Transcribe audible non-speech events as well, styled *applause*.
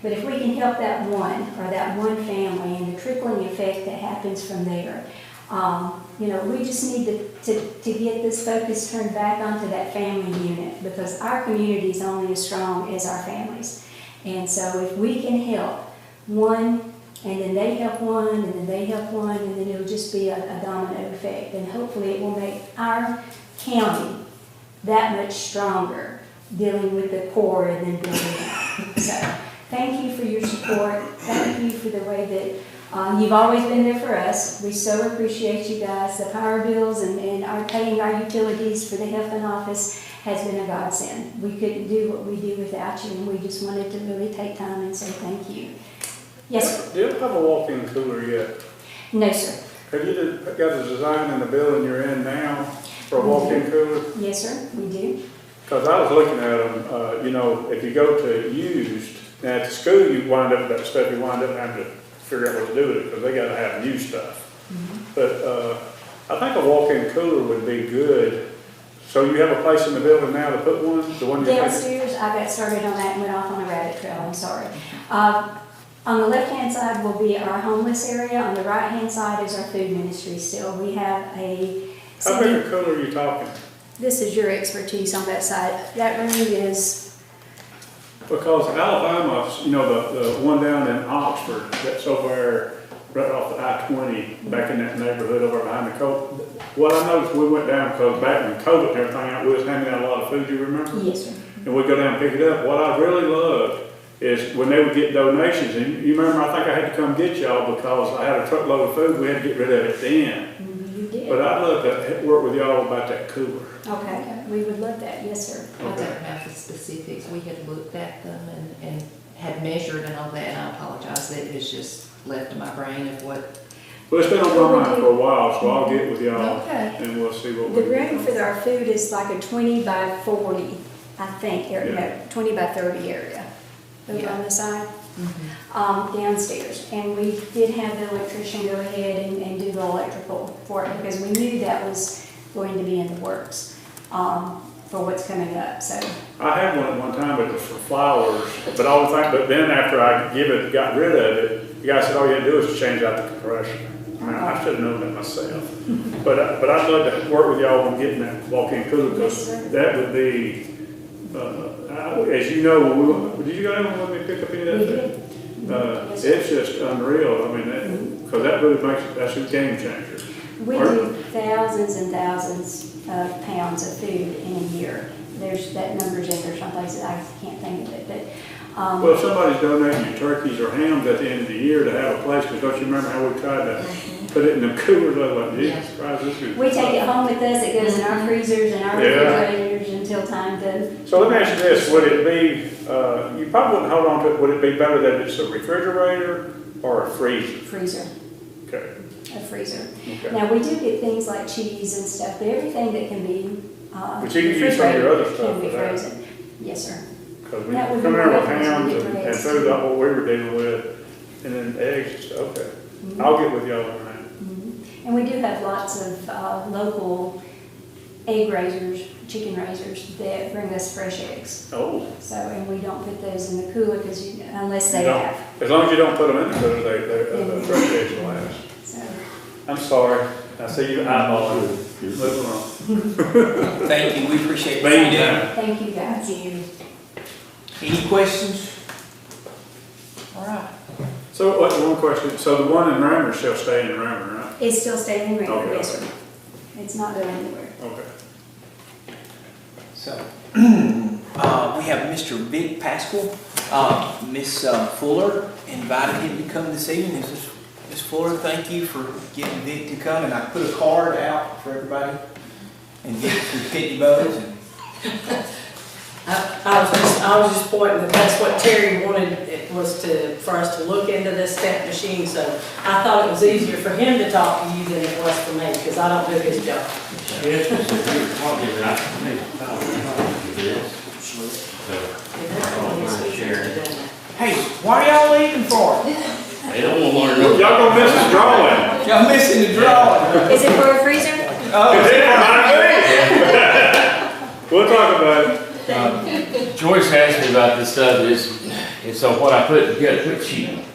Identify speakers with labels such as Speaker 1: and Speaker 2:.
Speaker 1: But if we can help that one, or that one family, and the trickling effect that happens from there, um, you know, we just need to, to, to get this focus turned back onto that family unit, because our community is only as strong as our families. And so if we can help one, and then they help one, and then they help one, and then it'll just be a, a domino effect, and hopefully it will make our county that much stronger dealing with the poor and then building up. So, thank you for your support. Thank you for the way that um, you've always been there for us. We so appreciate you guys. The power bills and, and our paying our utilities for the health and office has been a godsend. We couldn't do what we do without you, and we just wanted to really take time and say thank you. Yes,
Speaker 2: Do you have a walk-in cooler yet?
Speaker 1: no, sir.
Speaker 2: Have you de- got a design in the building you're in now for a walk-in cooler?
Speaker 1: Yes, sir, we do.
Speaker 2: Because I was looking at them, uh, you know, if you go to used, now at the school, you wind up with that stuff, you wind up having to figure out what to do with it, because they gotta have new stuff. But, uh, I think a walk-in cooler would be good. So you have a place in the building now to put one, the one you're thinking?
Speaker 1: Downstairs, I got started on that and went off on a rabbit trail, I'm sorry. Uh, On the left-hand side will be our homeless area, on the right-hand side is our food ministry still. We have a,
Speaker 2: How big a cooler are you talking?
Speaker 1: this is your expertise on that side. That room is,
Speaker 2: Because Alabama, you know, the, the one down in Oxford, that's over right off the I twenty, back in that neighborhood over behind the co What I noticed, we went down, because back when COVID and everything out, we was handing out a lot of food, you remember?
Speaker 1: yes, sir.
Speaker 2: And we'd go down and pick it up. What I really loved is when they would get donations, and you- you remember, I think I had to come get y'all because I had a truckload of food, we had to get rid of it then.
Speaker 1: You did.
Speaker 2: But I'd love to work with y'all about that cooler.
Speaker 1: Okay, we would love that, yes, sir.
Speaker 3: I don't know the specifics, we had looked at them and, and had measured and all that, and I apologize, that is just left in my brain of what.
Speaker 2: Well, it's been on my mind for a while, so I'll get with y'all
Speaker 3: Okay.
Speaker 2: and we'll see what we
Speaker 1: The
Speaker 2: can do.
Speaker 1: room for our food is like a twenty by forty, I think, area, no, twenty by thirty area over
Speaker 3: Yeah.
Speaker 1: on the side, um, downstairs. And we did have the electrician go ahead and, and do the electrical for it because we knew that was going to be in the works, um, for what's coming up, so.
Speaker 2: I had one at one time, but it was for flowers, but all the time, but then after I give it, got rid of it, the guy said, all you had to do is change out the compression. I mean, I should have known that myself, but, I- but I'd love to work with y'all on getting that walk-in cooler,
Speaker 1: Yes, sir.
Speaker 2: because that would be, uh, I- as you know, when we, did you go down and let me pick up any of
Speaker 1: We
Speaker 2: that?
Speaker 1: did.
Speaker 2: Uh,
Speaker 1: Yes,
Speaker 2: it's
Speaker 1: sir.
Speaker 2: just unreal, I mean, that, because that really makes, that's a game changer.
Speaker 1: We
Speaker 2: Or-
Speaker 1: do thousands and thousands of pounds of food in a year. There's, that number's in there someplace that I can't think of it, but, um.
Speaker 2: Well, if somebody's donating you turkeys or hams at the end of the year to have a place, because don't you remember how we tried to put it in the cooler, like, Jesus Christ, this is.
Speaker 1: Mm-hmm. We take it home with us, it goes in our freezers and our
Speaker 2: Yeah.
Speaker 1: refrigerators until time to.
Speaker 2: So let me ask you this, would it be, uh, you probably wouldn't hold on to it, would it be better that it's a refrigerator or a freezer?
Speaker 1: Freezer,
Speaker 2: Okay,
Speaker 1: a freezer.
Speaker 2: okay.
Speaker 1: Now, we do get things like cheese and stuff, but everything that can be, uh.
Speaker 2: But you can use some of your other
Speaker 1: refrigerated
Speaker 2: stuff
Speaker 1: Can be
Speaker 2: for that.
Speaker 1: frozen, yes, sir.
Speaker 2: Because we
Speaker 1: That
Speaker 2: come
Speaker 1: would
Speaker 2: in
Speaker 1: be
Speaker 2: with
Speaker 1: great.
Speaker 2: hams and- and
Speaker 1: Great.
Speaker 2: food, like what we were dealing with, and then eggs, and stuff. okay. I'll get with y'all on that.
Speaker 1: Mhm. Mm-hmm. And we do have lots of, uh, local egg raisers, chicken raisers that bring us fresh eggs.
Speaker 2: Oh.
Speaker 1: So, and we don't put those in the cooler because you, unless they
Speaker 2: You don't-
Speaker 1: have,
Speaker 2: As long as you don't put them in the cooler, they, they,
Speaker 1: Mm-hmm.
Speaker 2: the fresh eggs will last.
Speaker 1: so.
Speaker 2: I'm sorry, I see you eyeballing. Moving on.
Speaker 4: Thank you, we appreciate what you
Speaker 2: Thank you.
Speaker 4: do.
Speaker 1: Thank you guys.
Speaker 4: Any questions?
Speaker 3: All right.
Speaker 2: So, what, one question, so the one in Rammer shall stay in Rammer, right?
Speaker 1: It's still staying in
Speaker 2: Okay.
Speaker 1: Rankin, yes, sir. It's not going anywhere.
Speaker 2: Okay.
Speaker 4: So, *clears throat* uh, we have Mr. Vic Pascal. Uh, Ms. uh, Fuller invited him to come this evening. Ms. Ms. Fuller, thank you for getting Vic to come, and I put a card out for everybody. And Vic through Pitney Bowes, and
Speaker 5: I I was just, I was just pointing, that that's what Terry wanted, it was to, for us to look into this stamp machine, so I thought it was easier for him to talk to you than it was for me, because I don't do his job.
Speaker 6: Yes, it's a good quality, but I think it's all right. Yes. So,
Speaker 4: hey, what are y'all leaving for?
Speaker 6: They don't want to
Speaker 2: Y'all
Speaker 6: learn nothing.
Speaker 2: gonna miss the drawing?
Speaker 4: Y'all missing the drawing.
Speaker 1: Is it for a freezer?
Speaker 4: Oh,
Speaker 2: We'll talk about it.
Speaker 6: Joyce asked me about this stuff, it's, And so what I put together, quick sheet,